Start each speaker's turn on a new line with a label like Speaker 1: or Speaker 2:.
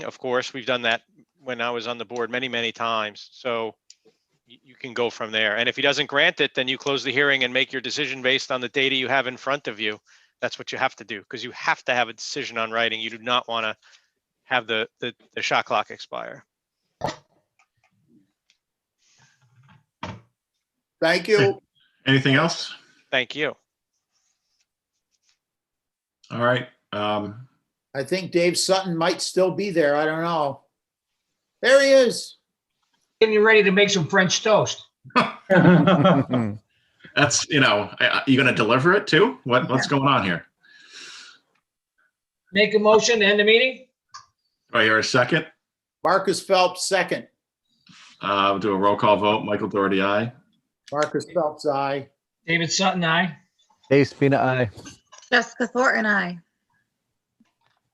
Speaker 1: of course. We've done that when I was on the board many, many times. So you, you can go from there. And if he doesn't grant it, then you close the hearing and make your decision based on the data you have in front of you. That's what you have to do because you have to have a decision on writing. You do not want to have the, the, the shot clock expire.
Speaker 2: Thank you.
Speaker 3: Anything else?
Speaker 1: Thank you.
Speaker 3: All right. Um,
Speaker 2: I think Dave Sutton might still be there. I don't know. There he is.
Speaker 4: Getting you ready to make some French toast.
Speaker 3: that's, you know, I- I- you going to deliver it too? What, what's going on here?
Speaker 4: Make a motion to end the meeting?
Speaker 3: Do I hear a second?
Speaker 2: Marcus Phelps, second.
Speaker 3: Uh, we'll do a roll call vote. Michael Doherty, aye.
Speaker 2: Marcus Phelps, aye.
Speaker 4: David Sutton, aye.
Speaker 5: Dave Spina, aye.
Speaker 6: Jessica Thornton, I.